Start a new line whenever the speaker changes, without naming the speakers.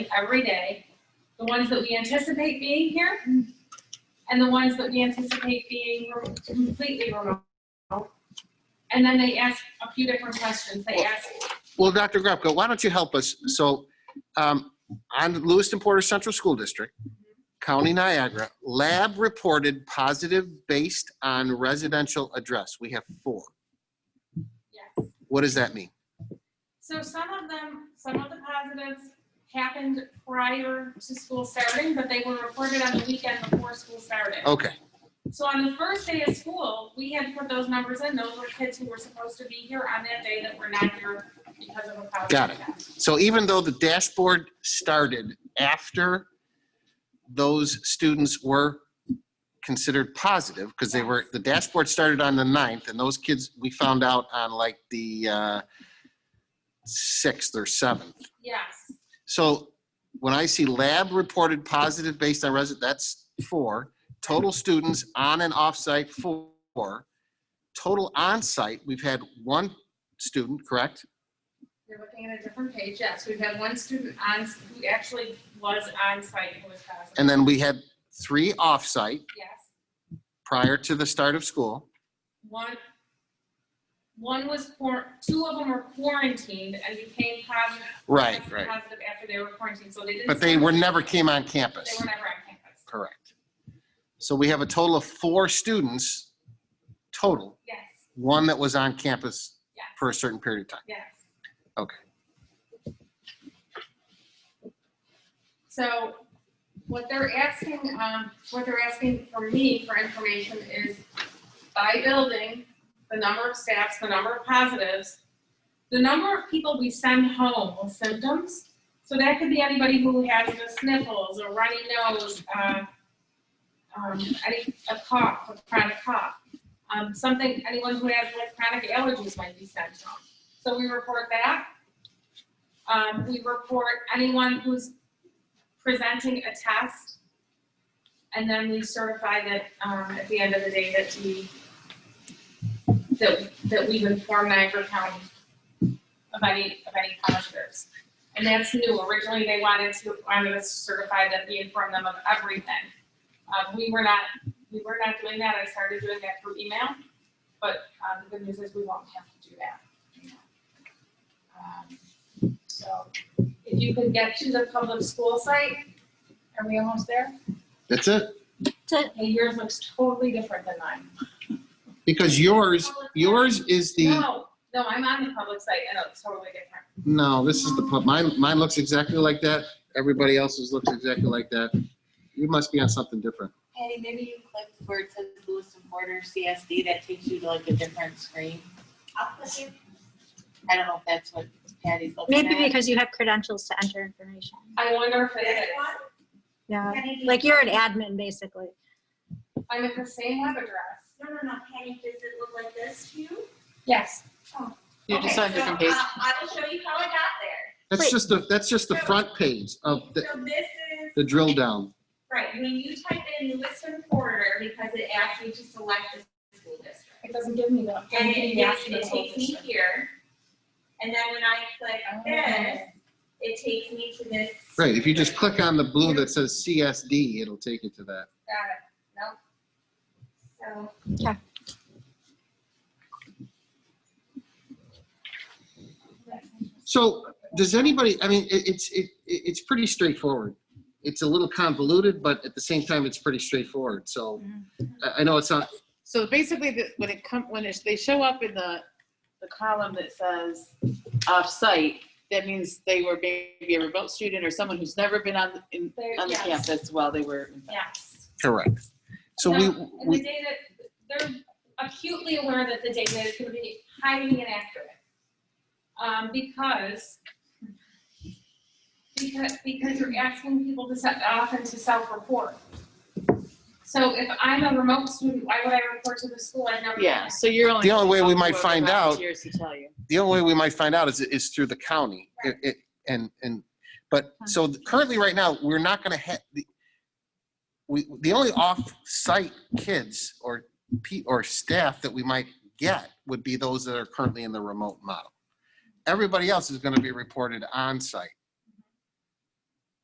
every day, the ones that we anticipate being here, and the ones that we anticipate being re- completely remote. And then they ask a few different questions. They ask,
Well, Dr. Grubka, why don't you help us? So, um, on Lewiston Porter Central School District, County Niagara, lab reported positive based on residential address. We have four.
yes.
What does that mean?
So some of them, some of the positives happened prior to school starting, but they were reported on the weekend before school started.
Okay,
So on the first day of school, we had put those numbers in. Those were kids who were supposed to be here on that day that were not here because of a positive
Got it.
test.
so even though the dashboard started after those students were considered positive, because they were, the dashboard started on the ninth, and those kids, we found out on like the, uh, sixth or seventh.
Yes,
So when I see lab reported positive based on resident, that's four. Total students on and off-site, four. Total on-site, we've had one student, correct?
you're looking at a different page. Yes, we've had one student on, who actually was on site who was positive.
And then we had three off-site
Yes,
prior to the start of school.
one, one was, quar- two of them were quarantined and became positive. tested Positive after they were quarantined, so they didn't.
But they
start-
were, never came on
They
campus.
were never on campus.
Correct. So we have a total of four students total,
Yes,
one that was on campus
yes,
for a certain period of time.
yes.
Okay.
So what they're asking, um, what they're asking for me for information is by building, the number of staffs, the number of positives, the number of people we send home with symptoms. So that could be anybody who has the sniffles or runny nose, uh, um, any, a cough, a chronic cough. Um, something, anyone who has like chronic allergies might be sent home. So we report that. Um, we report anyone who's presenting a test. And then we certify that, um, at the end of the day that we, that, that we've informed Niagara County of any, of any positives. And that's new. Originally, they wanted to, wanted us to certify that we informed them of everything. Um, we were not, we were not doing that. I started doing that through email. But, um, the good news is we won't have to do that. Um, So if you could get to the public school site, are we almost there?
That's it.
Hey, yours looks totally different than mine.
Because yours, yours is the.
No, no, I'm on the public site and it's totally different.
No, this is the, pub- mine, mine looks exactly like that. Everybody else's looks exactly like that. You must be on something different.
Hey, maybe you click where it says Lewis and Porter CSD, that takes you to like a different screen. I don't know if that's what Patty's looking at.
Maybe because you have credentials to enter information.
I wonder if it is.
Yeah, like you're an admin, basically.
I'm at the same web address.
No, no, no, Penny, does it look like this to you?
Yes.
You're just
Okay,
on a different
so,
page.
uh, I will show you how I got there.
That's
Wait.
just the, that's just the front page of Oh, the,
So this is,
the drill down.
right, when you type in Lewiston Porter, because it asks you to select the school district.
It doesn't give me that.
And it takes, it takes me here. And then when I click
Oh.
this, it takes me to this.
Right, if you just click on the blue that says CSD, it'll take you to that.
Got it. Nope.
Okay.
So.
So does anybody, I mean, it, it's, it, it- it's pretty straightforward. It's a little convoluted, but at the same time, it's pretty straightforward. So
Mm-hmm.
I, I know it's not,
So basically, the- when it come, when it's, they show up in the, the column that says off-site, that means they were maybe a remote student or someone who's never been on, the- in,
They-
on the
yes.
campus while they were.
Yes.
correct. So we,
No, And the
we,
data, they're acutely aware that the data is gonna be highly inaccurate. Um, because, because, because you're asking people to set, often to self-report. So if I'm a remote student, why would I report to the school? I never.
Yeah, so you're only.
The only way we might find out-
Volunteers to tell you.
the only way we might find out is, is through the county. It, it, and, and, but, so currently, right now, we're not gonna have, the we, the only off-site kids or P, or staff that we might get would be those that are currently in the remote model. Everybody else is gonna be reported on-site.